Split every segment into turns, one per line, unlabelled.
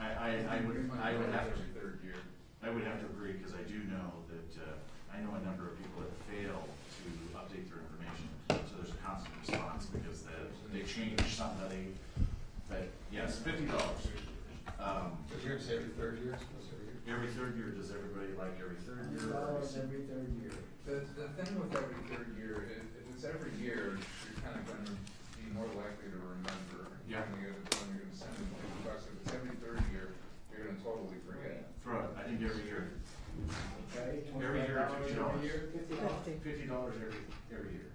uh, change somebody, but yes, fifty dollars. Um,
So you're gonna say every third year, it's supposed to be every year?
every third year, does everybody like every third
Hundred
year? or
dollars every
every-
third year.
The, the thing with every third year, if, if it's every year, you're kind of gonna be more likely to remember.
Yeah.
When you're, when you're gonna send them fifty bucks, if it's every third year, you're gonna totally forget.
Throw it, I think every year,
Okay,
Every
twenty-five
year,
dollars every
$50.
year, fifty dollars.
fifty dollars every, every year,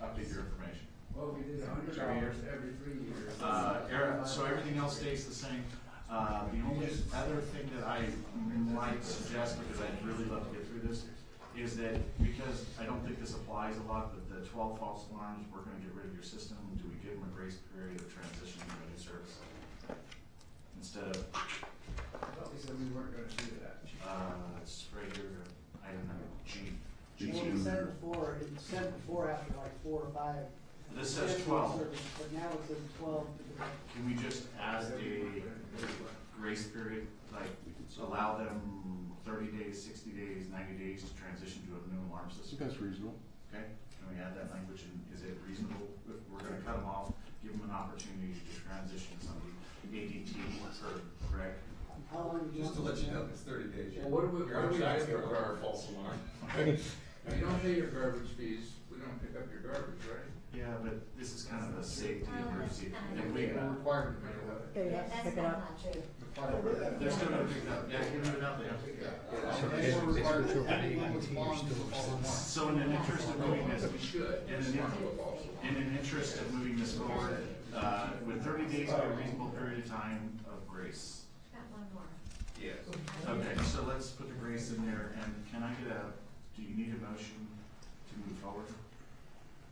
update your information.
Well, we did a hundred
Every year.
dollars every three years.
Uh, era- so everything else stays the same. Uh, the only other thing that I might suggest, because I'd really love to get through this, is that because I don't think this applies a lot, but the twelve false alarms, we're gonna get rid of your system, do we give them a grace period of transition to a new service? Instead of,
I thought we said we weren't gonna do that.
uh, it's right here, I don't know, G. G
Well,
two.
it said before, it said before after like four or five.
This says
Yes,
twelve,
service, But now it says twelve.
can we just add a grace period, like allow them thirty days, sixty days, ninety days to transition to a new alarm system,
That's reasonable.
okay? Can we add that language and is it reasonable if we're gonna cut them off, give them an opportunity to transition to something ADT or correct?
How long?
Just to let you know, it's thirty days.
Well, what do we-
You're
what do we
outside
do
your
about-
car, false alarm. If you don't pay your garbage fees, we don't pick up your garbage, right?
Yeah, but this is kind of a safety
Oh, that's
emergency.
kind
We
of-
If
have
we,
a requirement to pick it up.
Yeah, that's not true.
they're still gonna pick it up, yeah, give it up, they have to pick it up. So in the interest of moving this,
We should,
And then-
respond to a false alarm.
In an interest of moving this forward, uh, would thirty days be a reasonable period of time of grace?
Got one more.
Yes.
Okay, so let's put the grace in there, and can I get a, do you need a motion to move forward?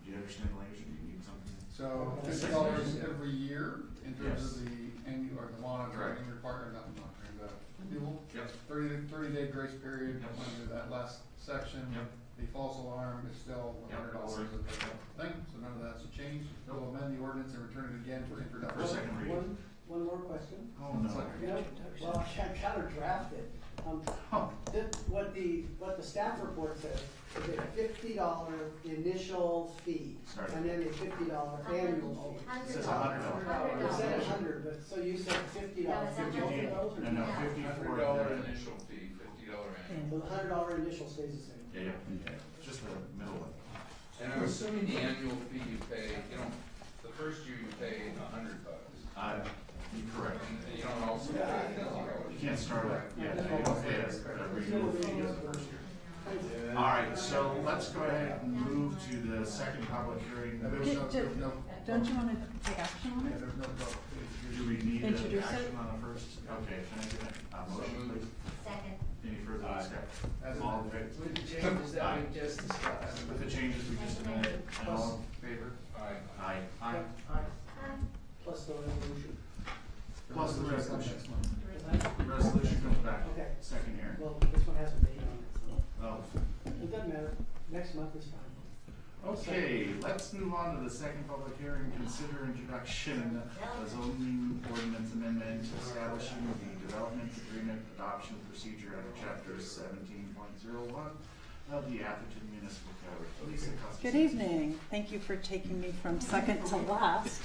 Do you understand the language, or do you need something?
So fifty dollars every year in terms of the annual, or the monitoring
Correct.
requirement, not the monitoring, the fuel.
Yep.
Thirty, thirty day grace period
Yep.
under that last section.
Yep.
The false alarm is still one
Yep.
hundred dollars of the thing, so none of that's a change. We'll amend the ordinance and return it again for introduction.
For second reading.
One, one more question.
Oh, no.
You know, well, I kind of drafted. Um, th- what the, what the staff report says is a fifty dollar initial fee.
Sorry.
And then a fifty dollar annual fee.
It
Hundred
says a hundred dollars.
Hundred
It said a
dollars.
hundred, but, so you said fifty dollars.
No, it's
Fifty, no, no,
Yeah.
fifty-four.
Hundred dollar initial fee, fifty dollar annual.
So the hundred dollar initial stays the same.
Yeah, yeah, just the middle one.
And I'm assuming the annual fee you pay, you don't, the first year you pay a hundred bucks.
Uh, you're correct.
And you don't also pay fifty dollars.
You can't start with, yeah, you don't pay us, but we fee is the first year. All right, so let's go ahead and move to the second public hearing.
And there's no, there's no.
Don't you want to take action on
Yeah,
it?
there's no vote. It's
Do we need an
Introduce it.
action on the first? Okay, can I get a uh, motion, please?
Second.
Any further discussion?
As
All in favor?
With the changes that we just discussed.
With the changes we just amended, and all in favor?
Aye.
Aye. Aye.
Huh?
Plus the resolution.
just-
Plus the resolution.
Next one.
Resolution comes back,
Okay.
second hearing.
Well, this one has a date on it,
Oh.
so it doesn't matter. Next month is fine.
Okay, let's move on to the second public hearing, consider introduction of zoning ordinance amendment establishing the development agreement adoption procedure under chapter seventeen point zero one of the Atherton Municipal Code. Lisa Costas.
Good evening. Thank you for taking me from second to last.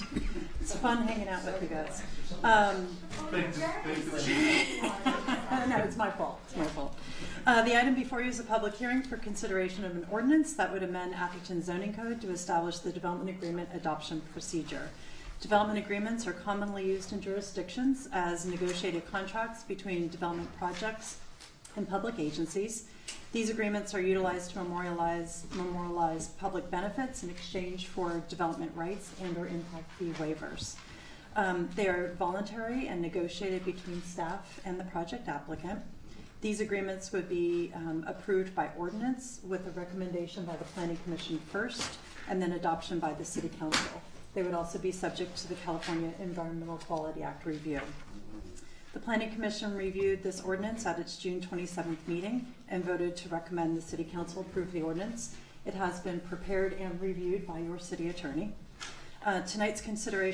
It's fun hanging out with you guys. Um,
Thank you, thank you.
no, it's my fault. It's my fault. Uh, the item before you is a public hearing for consideration of an ordinance that would amend Atherton zoning code to establish the development agreement adoption procedure. Development agreements are commonly used in jurisdictions as negotiated contracts between development projects and public agencies. These agreements are utilized to memorialize, memorialize public benefits in exchange for development rights and or impact fee waivers. Um, they are voluntary and negotiated between staff and the project applicant. These agreements would be um, approved by ordinance with a recommendation by the planning commission first and then adoption by the city council. They would also be subject to the California Environmental Quality Act review. The planning commission reviewed this ordinance at its June twenty-seventh meeting and voted to recommend the city council approve the ordinance. It has been prepared and reviewed by your city attorney. Uh, tonight's consideration